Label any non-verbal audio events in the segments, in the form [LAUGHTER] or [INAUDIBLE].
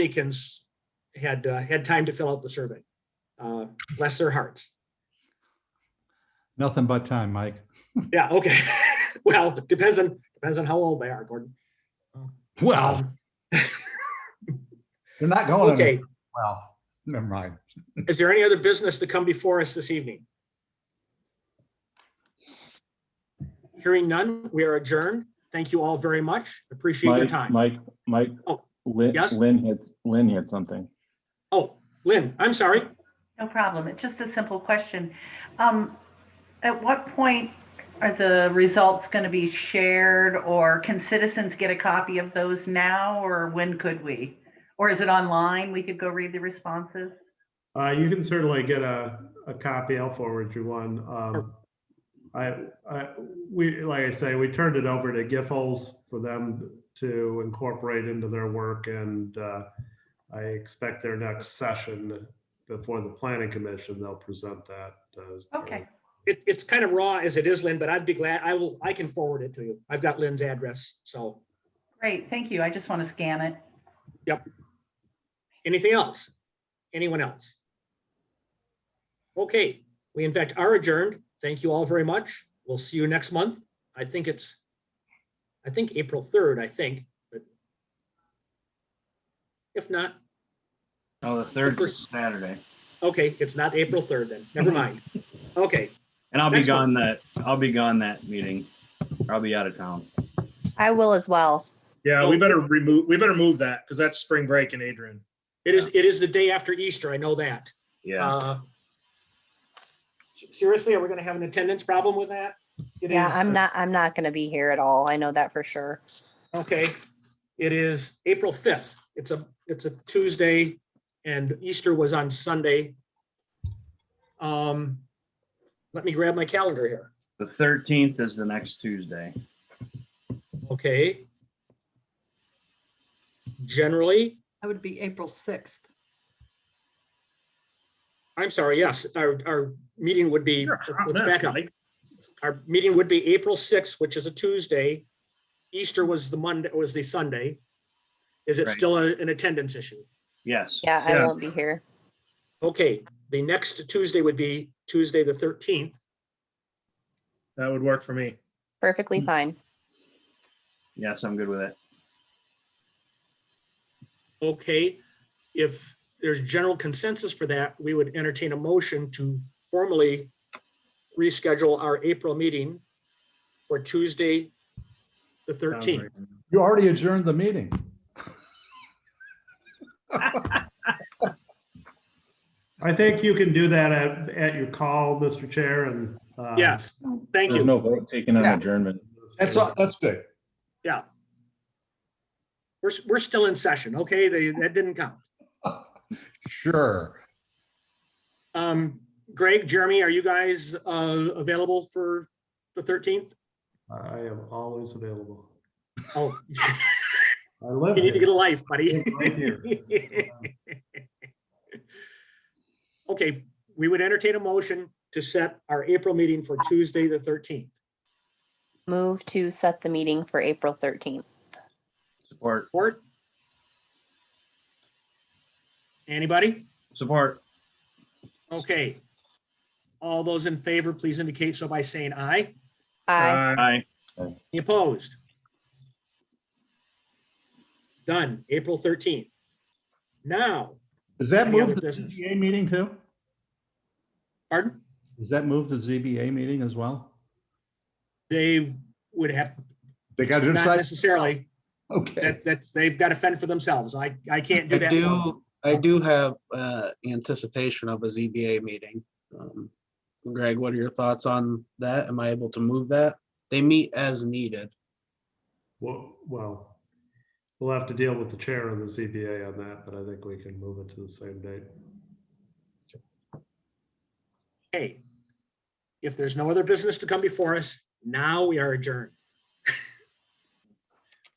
Dominicans had, uh, had time to fill out the survey. Uh, Bless their hearts. Nothing but time, Mike. Yeah, okay. [LAUGHS] Well, depends on, depends on how old they are, Gordon. Well, Um, they're not going. Okay, Well, never mind. is there any other business to come before us this evening? Hearing none, we are adjourned. Thank you all very much. Appreciate your Mike, time. Mike, Mike, Oh, Lynn, yes? Lynn had, Lynn had something. Oh, Lynn, I'm sorry. No problem. It's just a simple question. Um, At what point are the results going to be shared or can citizens get a copy of those now or when could we? Or is it online? We could go read the responses? Uh, you can certainly get a, a copy. I'll forward you one. Um, I, I, we, like I say, we turned it over to Giffords for them to incorporate into their work and, uh, I expect their next session before the planning commission, they'll present that. as part of- Okay. It, it's kind of raw as it is, Lynn, but I'd be glad, I will, I can forward it to you. I've got Lynn's address, so. Great, thank you. I just want to scan it. Anything else? Anyone else? Okay, we in fact are adjourned. Thank you all very much. We'll see you next month. I think it's, I think April 3rd, I think, but if not, Oh, the third first- is Saturday. okay, it's not April 3rd then. Never mind. Okay, And I'll be Next one. gone that, I'll be gone that meeting. I'll be out of town. I will as well. Yeah, we better remove, we better move that because that's spring break in Adrian. it is, it is the day after Easter. I know that. Yeah. Uh, s- Seriously, are we going to have an attendance problem with that? It Yeah, is- I'm not, I'm not gonna be here at all. I know that for sure. Okay, it is April fifth. It's a, it's a Tuesday and Easter was on Sunday. Um, let me grab my calendar here. The thirteenth is the next Tuesday. Okay. Generally, That would be April 6th. I'm sorry, yes, our, our meeting would be, You're a hot let's mess, back up. Mike. Our meeting would be April sixth, which is a Tuesday. Easter was the Monday, was the Sunday. Is it Right. still a- an attendance issue? Yes. Yeah, I Yeah. won't be here. Okay, the next Tuesday would be Tuesday, the thirteenth. That would work for me. Perfectly Mm. fine. Yes, I'm good with it. Okay, if there's general consensus for that, we would entertain a motion to formally reschedule our April meeting for Tuesday, the Sounds 13th. right. You already adjourned the meeting. I think you can do that at, at your call, Mr. Chair, and. uh, Yes, thank There's you. no vote taken on Yeah. adjournment. That's, all- that's good. [LAUGHS] We're, s- we're still in session, okay? They, that didn't count. Sure. Um, Greg, Jeremy, are you guys, uh, available for the 13th? I am always available. Oh, [LAUGHS] I live you need to get a here. life, [LAUGHS] buddy. Right [LAUGHS] here. Okay, we would entertain a motion to set our April meeting for Tuesday, the 13th. Move to set the meeting for April thirteenth. Support, Support? Anybody? support. Okay. All those in favor, please indicate so by saying aye. Aye. Uh, Aye. Any opposed? Done, April 13th. Now, Does that Any other move the business? ZBA meeting too? pardon, Does that move the ZBA meeting as well? they would have, They got to not decide. necessarily, Okay. that, that's, they've got to fend for themselves. I, I can't do I that. do, I do have uh, anticipation of a ZBA meeting. Um, Greg, what are your thoughts on that? Am I able to move that? They meet as needed. Well, well, we'll have to deal with the chair and the ZBA on that, but I think we can move it to the same date. Okay. If there's no other business to come before us, now we are adjourned.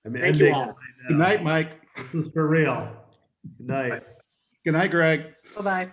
I mean, Thank you ending all. right Good now. night, Mike. This is for real. Good night. Good night, Greg. Bye-bye.